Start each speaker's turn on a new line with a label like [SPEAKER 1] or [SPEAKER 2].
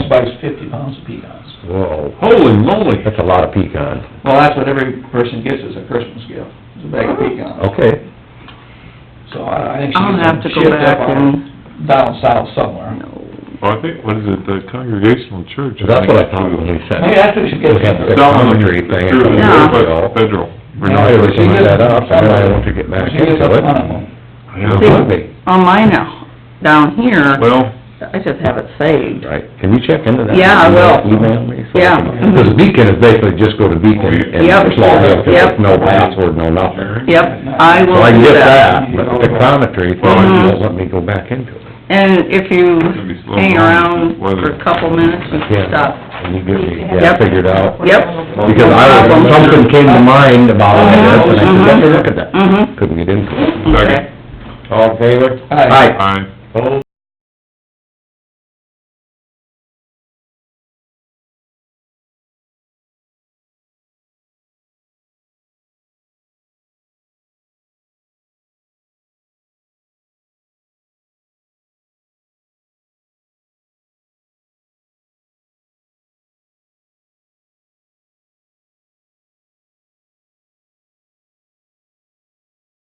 [SPEAKER 1] buys fifty pounds of pecans.
[SPEAKER 2] Whoa,
[SPEAKER 3] Holy moly!
[SPEAKER 2] that's a lot of pecan.
[SPEAKER 1] Well, that's what every person gets as a Christmas gift, is a bag of pecans.
[SPEAKER 2] Okay,
[SPEAKER 1] So I I think she
[SPEAKER 4] I'll have
[SPEAKER 1] gets
[SPEAKER 4] to
[SPEAKER 1] them
[SPEAKER 4] go
[SPEAKER 1] shipped
[SPEAKER 4] back
[SPEAKER 1] up on,
[SPEAKER 4] and,
[SPEAKER 1] down south somewhere.
[SPEAKER 3] Well, I think, what is it, the Congregational Church?
[SPEAKER 2] that's what I thought when we sent.
[SPEAKER 1] Maybe that's what she gets.
[SPEAKER 2] We had the
[SPEAKER 3] Down in the,
[SPEAKER 2] concrete thing.
[SPEAKER 3] through the,
[SPEAKER 4] Yeah.
[SPEAKER 3] but federal. We're
[SPEAKER 2] I
[SPEAKER 3] not-
[SPEAKER 2] was looking that up, I don't know if you get back
[SPEAKER 1] She gets
[SPEAKER 2] into
[SPEAKER 1] up
[SPEAKER 2] it.
[SPEAKER 1] on them.
[SPEAKER 2] It would
[SPEAKER 3] Yeah.
[SPEAKER 2] be,
[SPEAKER 4] on my now, down here,
[SPEAKER 3] Well,
[SPEAKER 4] I just have it saved.
[SPEAKER 2] right, can you check into that?
[SPEAKER 4] Yeah, I will.
[SPEAKER 2] Email me? so I
[SPEAKER 4] Yeah.
[SPEAKER 2] can- Cause beacon is basically just go to
[SPEAKER 3] Oh,
[SPEAKER 2] beacon and
[SPEAKER 4] Yep.
[SPEAKER 2] log in, 'cause
[SPEAKER 4] Yep.
[SPEAKER 2] there's no password, no nothing.
[SPEAKER 4] Yep, I
[SPEAKER 2] So I
[SPEAKER 4] will do
[SPEAKER 2] get
[SPEAKER 4] that.
[SPEAKER 2] that, but
[SPEAKER 3] Mm-hmm.
[SPEAKER 2] the commentary thing
[SPEAKER 4] Mhm.
[SPEAKER 2] won't let me go back into it.
[SPEAKER 4] And if you
[SPEAKER 3] gonna be slow
[SPEAKER 4] hang
[SPEAKER 3] going,
[SPEAKER 4] around
[SPEAKER 3] this weather.
[SPEAKER 4] for a couple minutes, you
[SPEAKER 2] Yeah.
[SPEAKER 4] can stop.
[SPEAKER 2] And you get me, yeah,
[SPEAKER 4] Yep.
[SPEAKER 2] figured out.
[SPEAKER 4] Yep.
[SPEAKER 2] Because I,
[SPEAKER 4] No
[SPEAKER 2] was-
[SPEAKER 4] problem.
[SPEAKER 2] something came to mind about all this, and I said, let me
[SPEAKER 4] Mhm.
[SPEAKER 2] look at that.
[SPEAKER 4] Mhm.
[SPEAKER 2] Couldn't get into it.
[SPEAKER 3] Second.
[SPEAKER 2] All in favor?
[SPEAKER 1] Aye.
[SPEAKER 3] I,
[SPEAKER 2] Opposed?